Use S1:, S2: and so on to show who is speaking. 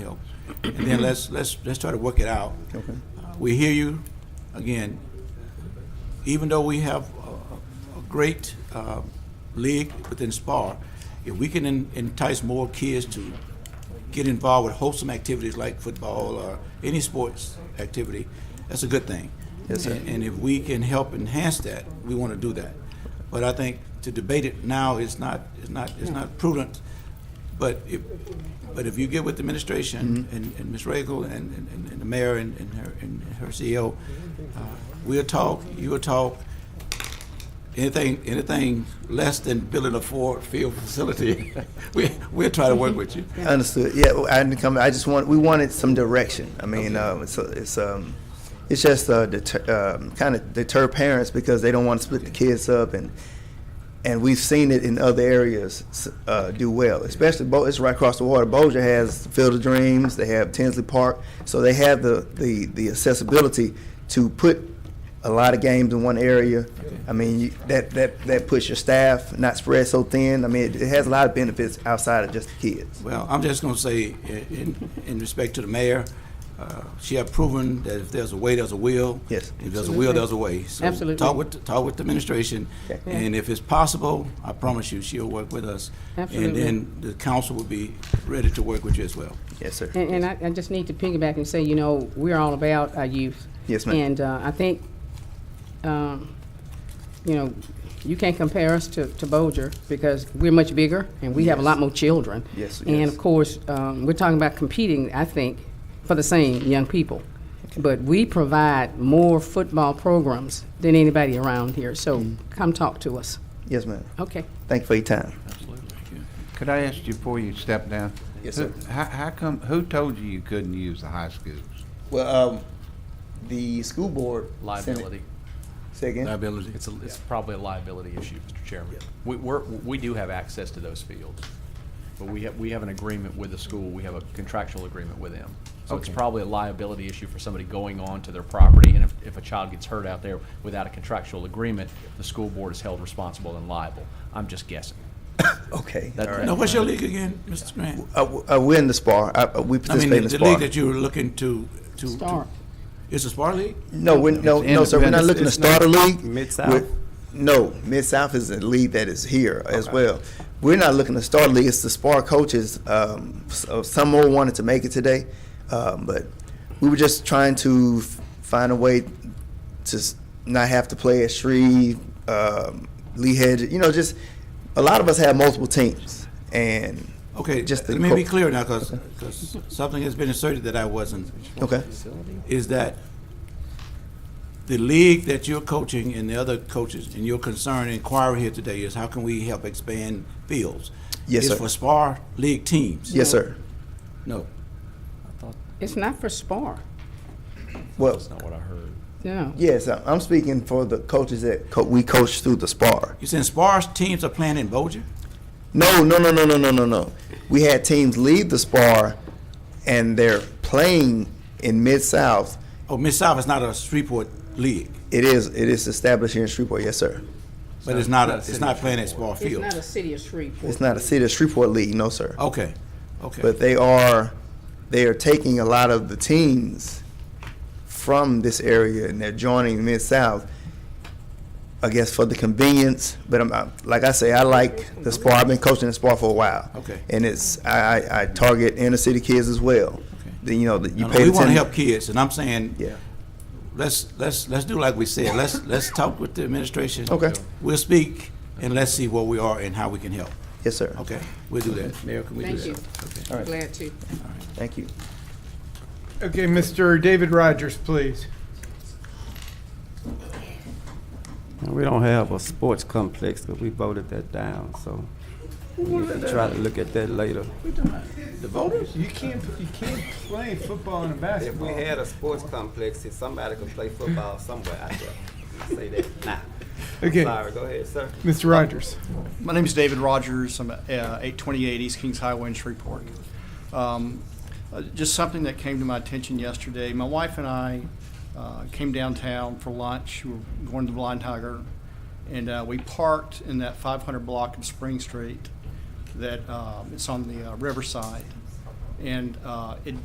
S1: and then let's, let's, let's try to work it out.
S2: Okay.
S1: Uh, We hear you, again, even though we have a- a, a great, uh, league within SPAR, if we can en- entice more kids to get involved with wholesome activities like football or any sports activity, that's a good thing.
S2: Yes, sir.
S1: And- And if we can help enhance that, we want to do that. But I think to debate it now is not, is not, is not prudent. But if, but if you get with the administration and, and Ms. Regal and, and, and the mayor and, and her, and her CEO, uh, we'll talk, you'll talk. Anything, anything less than building a four-field facility, we, we'll try to work with you.
S2: Understood. Yeah, well, I didn't come. I just want we wanted some direction. I mean, uh, it's it's um, it's just uh, deter, um, kind of deter parents because they don't want to split the kids up, and and we've seen it in other areas s- uh, do well. Especially, Bo- it's right across the water. Bossier has Field of Dreams. They have Tinsley Park, so they have the the the accessibility to put a lot of games in one area. I mean, you, that that that puts your staff not spread so thin. I mean, it, it has a lot of benefits outside of just the kids.
S1: Well, I'm just going to say, i- in, in respect to the mayor, uh, she have proven that if there's a way, there's a will.
S2: Yes.
S1: If there's a will, there's a way. So
S3: Absolutely.
S1: Talk with, the- talk with the administration,
S2: Okay.
S1: and if it's possible, I promise you, she'll work with us.
S3: Absolutely.
S1: And then the council will be ready to work with you as well.
S2: Yes, sir.
S3: And, and I, I just need to piggyback and say, you know, we're all about our youth.
S2: Yes, ma'am.
S3: And, uh, I think, um, you know, you can't compare us to, to Bolger because we're much bigger and we have a lot more children.
S2: Yes,
S3: And
S2: yes.
S3: of course, um, we're talking about competing, I think, for the same young people. But we provide more football programs than anybody around here, so
S2: Mm.
S3: come talk to us.
S2: Yes, ma'am.
S3: Okay.
S2: Thank you for your time.
S4: Could I ask you before you step down?
S2: Yes,
S4: Who-
S2: sir.
S4: How, how come, who told you you couldn't use the high schools?
S2: Well, um, the school board
S5: Liability.
S2: Say again.
S1: Liability.
S5: It's, a- it's probably a liability issue, Mr. Chairman. We, we're, we do have access to those fields, but we have, we have an agreement with the school, we have a contractual agreement with them. So it's
S4: Okay.
S5: probably a liability issue for somebody going on to their property, and if, if a child gets hurt out there without a contractual agreement, the school board is held responsible and liable. I'm just guessing.
S2: Okay.
S5: That-
S2: all right.
S1: Now, what's your league again, Mr. Grant?
S2: Uh, w- uh, we're in the spar. Uh, uh, we
S1: I mean,
S2: participate
S1: the
S2: in the
S1: the
S2: spar.
S1: league that you were looking to, to. to-
S3: Start.
S1: It's a Spar League?
S2: no, we're, no,
S4: It's
S2: no, sir. We're not
S4: independent.
S2: looking to
S4: It's
S2: start a
S4: not
S2: league.
S4: Mid-South?
S2: We're- No, Mid South is a league that is here as well. We're not looking to start a league. It's the spar coaches. Um, so some more wanted to make it today, um, but we were just trying to f- find a way to s- not have to play at Shreve, um, Lee Hedge. You know, just a lot of us have multiple teams, and
S1: Okay,
S2: Just the
S1: let me be
S2: co-
S1: clear now, because, something has been asserted that I wasn't.
S2: okay,
S1: is that the league that you're coaching and the other coaches and your concern and inquiry here today is how can we help expand fields?
S2: Yes,
S1: It's
S2: sir.
S1: for spar league teams.
S2: yes, sir.
S1: No.
S3: It's not for SPAR,
S2: Well,
S5: That's not what I heard.
S3: no.
S2: Yes, I- I'm speaking for the coaches that co- we coach through the spar.
S1: You're saying spar teams are playing in Bossier?
S2: No, no, no, no, no, no, no, no. We had teams leave the spar, and they're playing in Mid South.
S1: Oh, Miss South is not a Shreveport league,
S2: It is it is established here in Shreveport, yes, sir.
S1: but it's not, a- it's not playing at spar
S3: It's
S1: field.
S3: not a city of Shreveport.
S2: It's not a city of Shreveport league, no, sir.
S1: Okay, okay.
S2: But they are they are taking a lot of the teams from this area, and they're joining Mid South. I guess for the convenience, but I'm I, like I say, I like the spar. I've been coaching the spar for a while.
S1: Okay.
S2: And it's I, I, I target inner city kids as well. Okay. The, you know, the, you
S1: Now,
S2: pay
S1: We want to
S2: attention-
S1: help kids, and I'm saying,
S2: Yeah.
S1: let's, let's, let's do like we said, let's, let's talk with the administration.
S2: Okay.
S1: We'll speak, and let's see where we are and how we can help.
S2: Yes, sir.
S1: Okay, we'll do that. Mayor, can we do
S3: Thank
S1: that?
S3: you.
S1: Okay.
S3: Glad to.
S2: Thank you.
S6: Okay, Mr. David Rogers, please.
S7: And We don't have a sports complex, but we voted that down, so we can try to look at that later.
S1: The voters?
S6: You can't, you can't play football and
S8: If we
S6: basketball.
S8: had a sports complex, if somebody could play football somewhere out there, say that now.
S6: Okay.
S8: Sorry, go ahead, sir.
S6: Mr. Rogers.
S9: My name is David Rogers. I'm at uh, 828 East Kings Highway in Shreveport. Um, uh, Just something that came to my attention yesterday. My wife and I uh, came downtown for lunch. We were going to the Blind Tiger, and uh, we parked in that 500 block of Spring Street that um, it's on the uh, riverside. And uh, it